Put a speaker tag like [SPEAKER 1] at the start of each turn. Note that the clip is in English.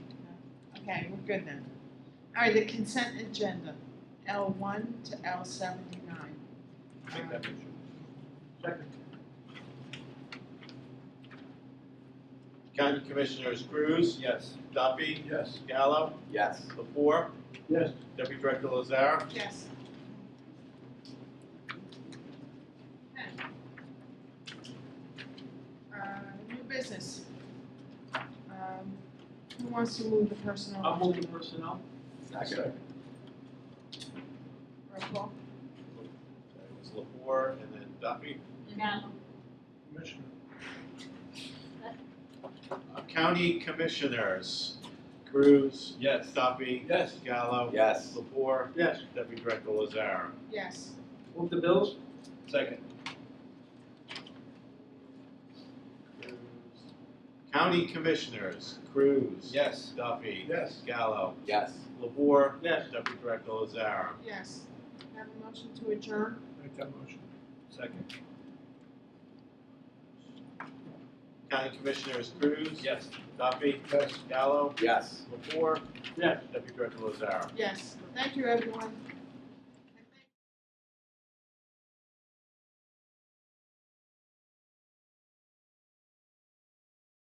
[SPEAKER 1] Okay, we're good then. All right, the consent agenda, L one to L seventy-nine.
[SPEAKER 2] Make that motion.
[SPEAKER 3] County Commissioners Cruz,
[SPEAKER 2] Yes.
[SPEAKER 3] Duffy,
[SPEAKER 2] Yes.
[SPEAKER 3] Gallo,
[SPEAKER 4] Yes.
[SPEAKER 3] Lapour,
[SPEAKER 2] Yes.
[SPEAKER 3] Deputy Director Lazar,
[SPEAKER 1] Um, Yes. Okay. Uh, new business. Um, who wants to move the personnel?
[SPEAKER 5] I'll move the personnel.
[SPEAKER 4] Second.
[SPEAKER 1] Roll call.
[SPEAKER 3] it was Lapour and then Duffy.
[SPEAKER 6] Now,
[SPEAKER 2] Commissioner.
[SPEAKER 3] Uh, County Commissioners Cruz,
[SPEAKER 2] Yes.
[SPEAKER 3] Duffy,
[SPEAKER 2] Yes.
[SPEAKER 3] Gallo,
[SPEAKER 4] Yes.
[SPEAKER 3] Lapour,
[SPEAKER 2] Yes.
[SPEAKER 3] Deputy Director Lazar.
[SPEAKER 1] Yes.
[SPEAKER 5] Move the bills.
[SPEAKER 2] Second.
[SPEAKER 3] County Commissioners Cruz,
[SPEAKER 2] Yes.
[SPEAKER 3] Duffy,
[SPEAKER 2] Yes.
[SPEAKER 3] Gallo,
[SPEAKER 4] Yes.
[SPEAKER 3] Lapour,
[SPEAKER 2] Yes.
[SPEAKER 3] Deputy Director Lazar.
[SPEAKER 1] Yes. Have a motion to adjourn?
[SPEAKER 2] Make that motion. Second.
[SPEAKER 3] County Commissioners Cruz,
[SPEAKER 2] Yes.
[SPEAKER 3] Duffy,
[SPEAKER 2] Yes.
[SPEAKER 3] Gallo,
[SPEAKER 4] Yes.
[SPEAKER 3] Lapour,
[SPEAKER 5] Yes.
[SPEAKER 3] Deputy Director Lazar.
[SPEAKER 1] Yes. Thank you, everyone.